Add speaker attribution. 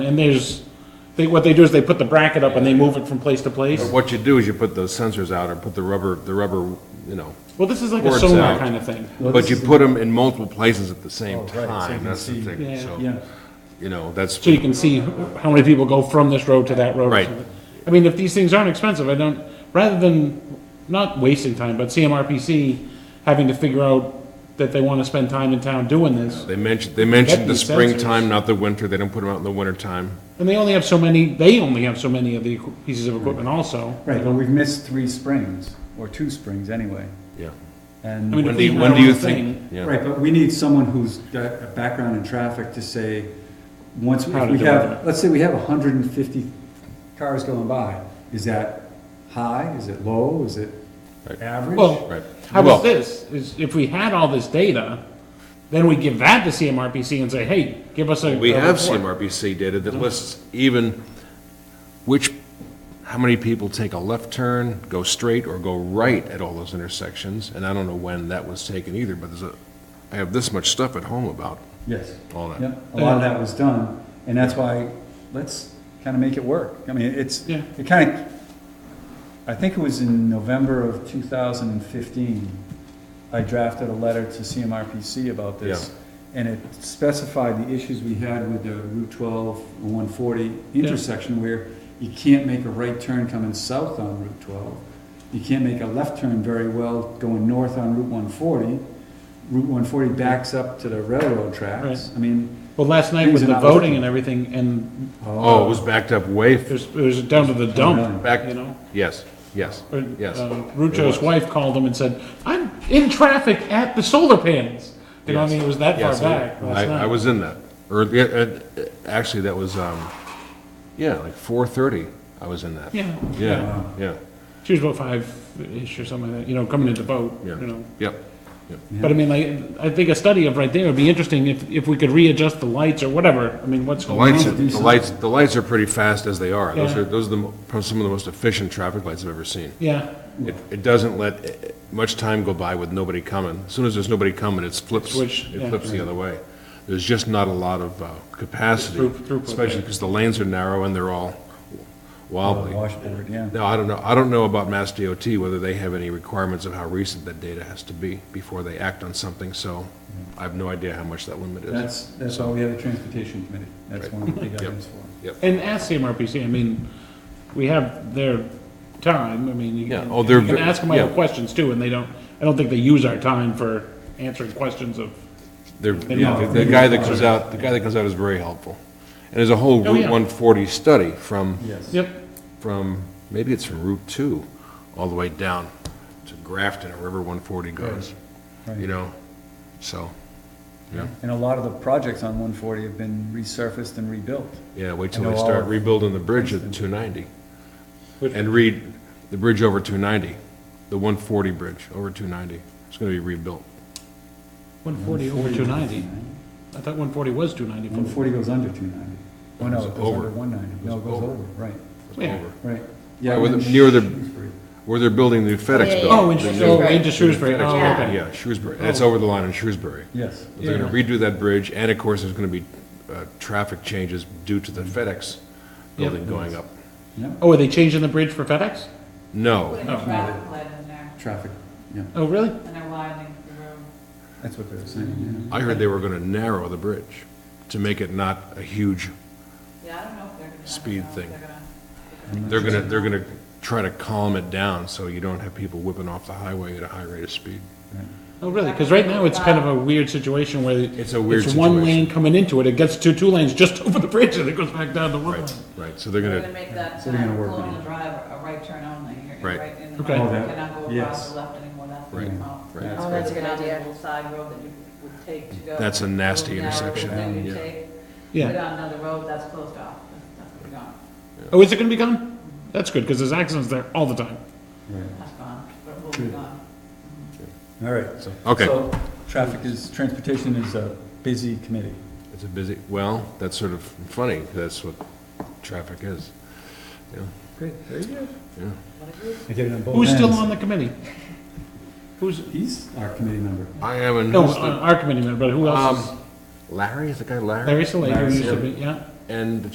Speaker 1: And there's, they, what they do is they put the bracket up and they move it from place to place.
Speaker 2: But What you do is you put those sensors out or put the rubber, the rubber, you know,
Speaker 1: Well, this is like a
Speaker 2: Boards
Speaker 1: sonar
Speaker 2: out.
Speaker 1: kind of thing.
Speaker 2: but you put them in multiple places at the same
Speaker 3: Oh, so you
Speaker 2: time,
Speaker 3: can
Speaker 2: that's the
Speaker 3: see.
Speaker 2: thing,
Speaker 1: Yeah.
Speaker 2: so,
Speaker 1: Yeah.
Speaker 2: you know, that's,
Speaker 1: So you can see who- how many people go from this road to that road. or
Speaker 2: Right.
Speaker 1: something. I mean, if these things aren't expensive, I don't, rather than, not wasting time, but CMRPC having to figure out that they want to spend time in town doing this.
Speaker 2: they mentioned, they mentioned the
Speaker 1: these sensors.
Speaker 2: springtime, not the winter, they don't put them out in the wintertime.
Speaker 1: And they only have so many, they only have so many of the equi- pieces of equipment also.
Speaker 3: Right, but we've missed three springs, or two springs anyway,
Speaker 2: yeah.
Speaker 3: and.
Speaker 1: I mean,
Speaker 2: When
Speaker 1: If
Speaker 2: do,
Speaker 1: we
Speaker 2: you-
Speaker 1: had
Speaker 2: when
Speaker 1: our
Speaker 2: do you
Speaker 1: own
Speaker 2: think? yeah.
Speaker 3: Right, but we need someone who's got a background in traffic to say, once,
Speaker 1: How
Speaker 3: if
Speaker 1: to
Speaker 3: we
Speaker 1: do
Speaker 3: have,
Speaker 1: it.
Speaker 3: let's say we have hundred and fifty cars going by, is that high, is it low, is it
Speaker 2: Right.
Speaker 3: average?
Speaker 1: Well,
Speaker 2: Right.
Speaker 1: How
Speaker 2: Well-
Speaker 1: about this, is if we had all this data, then we give that to CMRPC and say, hey, give us a.
Speaker 2: We
Speaker 1: a
Speaker 2: have
Speaker 1: report.
Speaker 2: CMRPC data that lists even which, how many people take a left turn, go straight, or go right at all those intersections, and I don't know when that was taken either, but there's a, I have this much stuff at home about
Speaker 3: Yes,
Speaker 2: all that.
Speaker 3: yeah, a lot of that was done, and that's why, let's kind of make it work, I mean, it's,
Speaker 1: Yeah.
Speaker 3: it kind of, I think it was in November of two thousand and fifteen, I drafted a letter to CMRPC about this, and it specified the issues we had with the Route twelve and one forty intersection where you can't make a right turn coming south on Route twelve, you can't make a left turn very well going north on Route one forty, Route one forty backs up to the railroad tracks,
Speaker 1: Right.
Speaker 3: I mean.
Speaker 1: Well, last night
Speaker 3: Things
Speaker 1: with
Speaker 3: are
Speaker 1: the
Speaker 3: not
Speaker 1: voting
Speaker 3: working.
Speaker 1: and everything, and
Speaker 2: Oh, it was backed up way,
Speaker 1: it
Speaker 2: f-
Speaker 1: was, it was down to the dump,
Speaker 2: back,
Speaker 1: you know?
Speaker 2: yes, yes,
Speaker 1: Or,
Speaker 2: yes.
Speaker 1: uh,
Speaker 2: It
Speaker 1: Rucho's
Speaker 2: was.
Speaker 1: wife called him and said, I'm in traffic at the solar panels. You know, what I
Speaker 2: Yes.
Speaker 1: mean, it was that far
Speaker 2: Yes, I-
Speaker 1: back last
Speaker 2: I, I
Speaker 1: night.
Speaker 2: was in that, or, yeah, uh, actually, that was, um, yeah, like four thirty, I was in that.
Speaker 1: Yeah,
Speaker 2: Yeah, yeah,
Speaker 1: she was about five-ish or something like that, you know, coming in to vote, you
Speaker 2: Yeah.
Speaker 1: know?
Speaker 2: yep, yep.
Speaker 1: But I mean, like, I think a study of right there would be interesting if, if we could readjust the lights or whatever, I mean, what's
Speaker 2: The
Speaker 1: going on.
Speaker 2: lights,
Speaker 3: to
Speaker 2: are-
Speaker 3: do
Speaker 2: the lights, the lights are pretty fast as they are. Those
Speaker 1: Yeah.
Speaker 2: are, those are the, mo- probably some of the most efficient traffic lights I've ever seen.
Speaker 1: Yeah,
Speaker 2: It, it doesn't let eh, eh, much time go by with nobody coming. As soon as there's nobody coming, it flips,
Speaker 1: Switch, yeah.
Speaker 2: it flips the other way. There's just not a lot of uh, capacity,
Speaker 1: Through- throughput,
Speaker 2: especially because the lanes are narrow and they're all wobbly.
Speaker 3: Washboard, yeah.
Speaker 2: Now, I don't know, I don't know about Mass DOT, whether they have any requirements of how recent that data has to be before they act on something, so I have no idea how much that limit is.
Speaker 3: That's, that's why we have a transportation committee. That's one of the big items for.
Speaker 1: and ask CMRPC, I mean, we have their time, I mean, you
Speaker 2: Yeah,
Speaker 1: can,
Speaker 2: oh, they're
Speaker 1: you can
Speaker 2: ve-
Speaker 1: ask them other
Speaker 2: yeah.
Speaker 1: questions too, and they don't, I don't think they use our time for answering questions of,
Speaker 2: They're, yeah,
Speaker 1: not-
Speaker 2: the the guy that comes out, the guy that comes out is very helpful. And there's a whole
Speaker 1: Oh,
Speaker 2: Route
Speaker 1: yeah.
Speaker 2: 140 study from,
Speaker 3: Yes.
Speaker 1: yep,
Speaker 2: from, maybe it's from Route 2, all the way down to Grafton or wherever 140 goes,
Speaker 3: Right.
Speaker 2: you know? So, yeah,
Speaker 3: And a lot of the projects on one forty have been resurfaced and rebuilt.
Speaker 2: yeah, wait till
Speaker 3: know
Speaker 2: they
Speaker 3: all
Speaker 2: start
Speaker 3: of
Speaker 2: rebuilding the bridge at 290.
Speaker 1: Which-
Speaker 2: And read the bridge over 290, the 140 bridge over 290. It's gonna be rebuilt.
Speaker 1: one forty over two ninety. I thought one forty was two ninety.
Speaker 3: One forty goes under two ninety. Oh, no, it
Speaker 2: It's
Speaker 3: goes
Speaker 2: over.
Speaker 3: under one ninety. No, it
Speaker 2: It's
Speaker 3: goes
Speaker 2: over.
Speaker 3: over, right,
Speaker 2: It's
Speaker 1: Yeah.
Speaker 2: over.
Speaker 3: right.
Speaker 2: Right,
Speaker 3: Yeah.
Speaker 2: with
Speaker 3: and
Speaker 2: the- near the-
Speaker 3: Shrewsbury.
Speaker 2: Where they're building the FedEx
Speaker 4: yeah,
Speaker 2: building.
Speaker 4: yeah.
Speaker 1: Oh, in,
Speaker 2: the new-
Speaker 1: oh, into Shrewsbury,
Speaker 2: FedEx
Speaker 1: oh,
Speaker 2: building,
Speaker 1: okay.
Speaker 2: Yeah, Shrewsbury. That's
Speaker 3: Oh.
Speaker 2: over the line in Shrewsbury.
Speaker 3: Yes.
Speaker 2: They're gonna redo that bridge, and of course, there's gonna be uh, traffic changes due to the FedEx building going up.
Speaker 3: Yeah,
Speaker 1: Oh, are they changing the bridge for FedEx?
Speaker 2: No,
Speaker 4: Putting a traffic light in there,
Speaker 3: traffic, yeah,
Speaker 1: Oh, really?
Speaker 4: and they're widening the road.
Speaker 3: that's what they were saying,
Speaker 2: I heard they were gonna narrow the bridge to make it not a huge,
Speaker 4: Yeah, I don't know if they're gonna. I don't
Speaker 2: Speed
Speaker 4: know if
Speaker 2: thing.
Speaker 4: they're gonna-
Speaker 2: they're gonna, they're gonna try to calm it down so you don't have people whipping off the highway at a high rate of speed.
Speaker 1: Oh, really? Because right now, it's kind of a weird situation where.
Speaker 2: It's a weird
Speaker 1: It's one
Speaker 2: situation.
Speaker 1: lane coming into it, it gets to two lanes just over the bridge, and it goes back down to one lane.
Speaker 2: Right, right, so they're
Speaker 4: They're gonna
Speaker 2: gonna,
Speaker 4: make that,
Speaker 3: So they're gonna
Speaker 4: uh,
Speaker 3: work on
Speaker 4: Colonial
Speaker 3: it.
Speaker 4: Drive a right turn only. You're gonna
Speaker 2: Right.
Speaker 4: Right in the
Speaker 1: Okay.
Speaker 4: middle,
Speaker 3: Oh,
Speaker 4: you
Speaker 3: that-
Speaker 4: cannot go
Speaker 3: yes.
Speaker 4: across the left anymore, that's.
Speaker 2: Right, right.
Speaker 3: Yeah.
Speaker 4: Oh,
Speaker 5: that's a good idea.
Speaker 4: Little side road that you would take to go.
Speaker 2: That's a nasty
Speaker 4: Little narrow little
Speaker 2: intersection.
Speaker 4: thing you
Speaker 2: Yeah.
Speaker 4: take, Put
Speaker 1: Yeah.
Speaker 4: on another road that's closed off, that's gonna be gone,
Speaker 1: Oh, is it gonna be gone? That's good, because there's accidents there all the time.
Speaker 3: yeah. Right.
Speaker 4: that's gone, but it will be
Speaker 3: Good.
Speaker 4: gone.
Speaker 3: All right. so-
Speaker 2: Okay.
Speaker 3: So, traffic is, transportation is a busy committee.
Speaker 2: it's a busy, well, that's sort of funny, that's what traffic is.
Speaker 3: Great, there you go.
Speaker 2: Yeah.
Speaker 3: I get it on both
Speaker 1: Who's still
Speaker 3: ends.
Speaker 1: on the committee? Who's,
Speaker 3: He's our committee member.
Speaker 2: I am in,
Speaker 1: no, uh, on our committee member, but who else? is-
Speaker 2: um, Larry, is the guy Larry?
Speaker 1: Larry Saleh, who
Speaker 3: Larry
Speaker 1: used to
Speaker 3: Saleh.
Speaker 1: be, yeah.
Speaker 2: And